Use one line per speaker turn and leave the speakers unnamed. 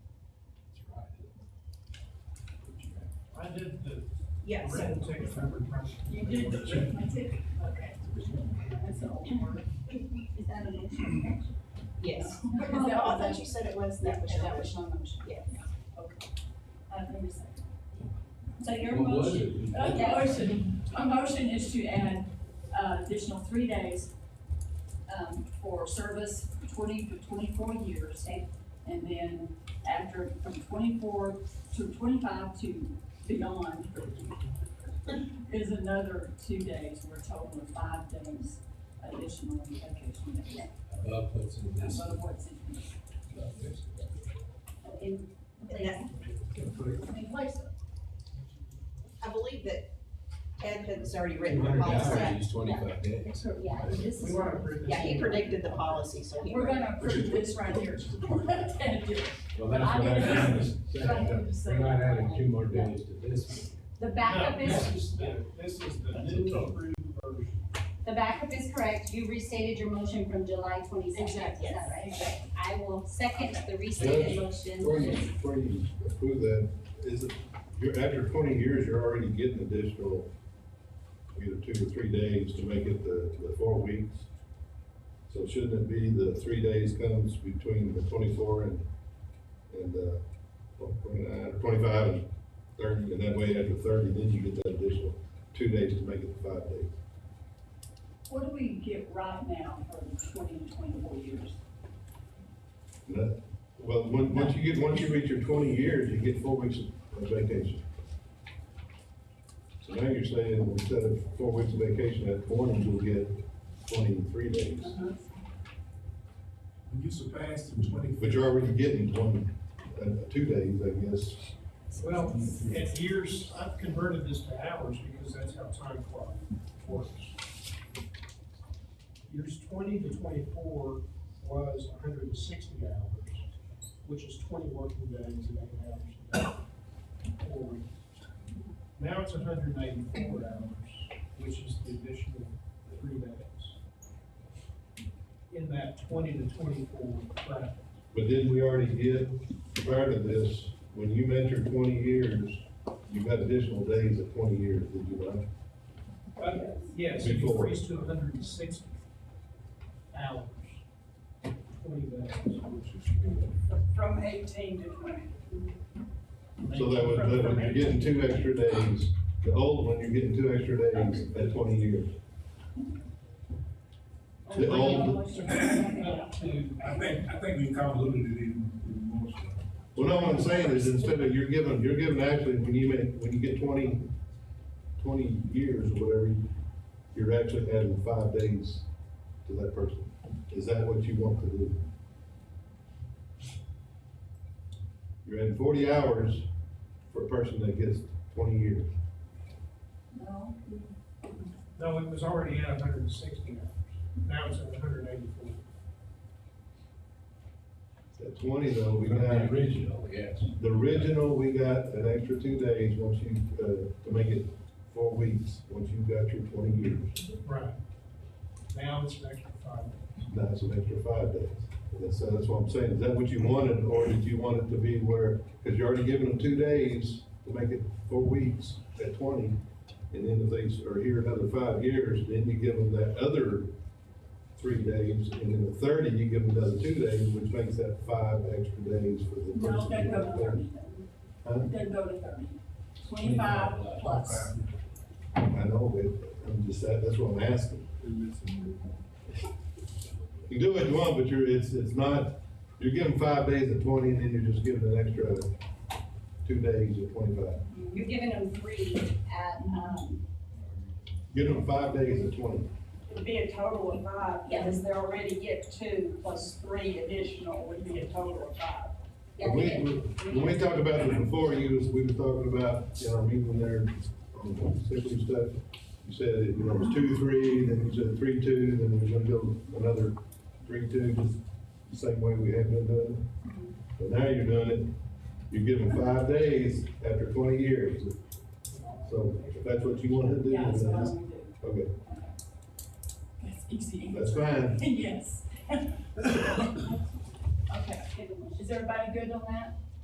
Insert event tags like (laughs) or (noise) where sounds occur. did the
Yes.
red ticket number.
You did the arithmetic, okay.
That's an old word. Is that a motion?
Yes.
Oh, (laughs) I thought you said it was, that was your
That
motion.
was my motion.
Yeah. Okay. Uh, give me a second.
So your
What was
motion,
it?
uh, motion, my motion is to add, uh, additional three days, um, for service twenty to twenty-four years. And then after, from twenty-four to twenty-five to beyond is another two days, we're total of five days additional vacation days.
Above what's in this.
Above what's in here.
above this.
In place, in place of.
I believe that Ed has already written the policy.
200 is twenty-five days.
It's her- Yeah, this
We
is.
want to approve this.
Yeah, he predicted the policy, so he.
We're gonna approve this right here. (laughs)
Well,
But
that's
I
what I
didn't-
was saying. We're not adding two more days to this.
The
No,
backup
this
is,
is the, this is the new approved version.
the backup is correct, you restated your motion from July twenty-second, is that
Exactly.
right? I will second the restated
Before you,
motion.
before you approve that, is it, you're, after twenty years, you're already getting additional either two or three days to make it the, the four weeks. So shouldn't it be the three days comes between the twenty-four and, and, uh, well, twenty-nine, or twenty-five and thirty, and that way after thirty, then you get that additional two days to make it the five days.
What do we get right now for the twenty and twenty-four years?
And that- Well, once, once you get, once you reach your twenty years, you get four weeks of vacation. So now you're saying, instead of four weeks of vacation at twenty, you'll get twenty-three days,
When you surpass the twenty.
but you're already getting twenty, uh, two days, I guess.
Well, at years, I've converted this to hours because that's how time clock works. Years twenty to twenty-four was hundred and sixty hours, which is twenty working days and eight hours a day. four weeks. Now it's hundred and eighty-four hours, which is the additional three days. In that twenty to twenty-four bracket.
But didn't we already get, prior to this, when you measure twenty years, you got additional days at twenty years, did you not?
Uh, Yes, it
Before.
increased to hundred and sixty hours, twenty days.
From eighteen to twenty.
So that would, that would, you're getting two extra days, the old one, you're getting two extra days at twenty years. The
Oh,
old,
Up to,
I think, I think we convoluted it in, in most.
well, no, what I'm saying is instead of, you're given, you're given actually, when you make, when you get twenty, twenty years or whatever, you're actually adding five days to that person. Is that what you want to do? You're adding forty hours for a person that gets twenty years.
No,
no, it was already at hundred and sixty hours, now it's at hundred and eighty-four.
At twenty though, we
From
got.
the original, yes.
The original, we got an extra two days once you, uh, to make it four weeks, once you got your twenty years.
Right. Now it's an extra five days.
Now it's an extra five days. And That's, that's what I'm saying. Is that what you wanted, or did you want it to be where, because you're already giving them two days to make it four weeks at twenty, and then if they are here another five years, then you give them that other three days, and then the thirty, you give them another two days, which makes that five extra days for the
no,
person.
they
who
go
got
to
there.
thirty.
Huh?
They go to thirty. Twenty-five plus.
I know, but I'm just, that- that's what I'm asking. You can do what you want, but you're, it's, it's not, you're giving five days at twenty, and then you're just giving an extra two days at twenty-five.
You're giving them three at, um,
Give them five days at twenty.
It'd be a total of five,
Yeah.
because they already get two plus three additional would be a total of five.
yeah,
When
they
we, when we talked about it before, you was, we were talking about, in our meeting there, on sick leave stuff, you said, it, you know, it was two, three, then you said three, two, then we're gonna go another three, two, just the same way we had been doing it. But now you're doing it, you're giving five days after twenty years. So if that's what you want to do,
Yeah,
then
that's what I
that's,
would do.
okay,
That's easy.
that's fine.
(laughs) Yes. Okay, is everybody good on that?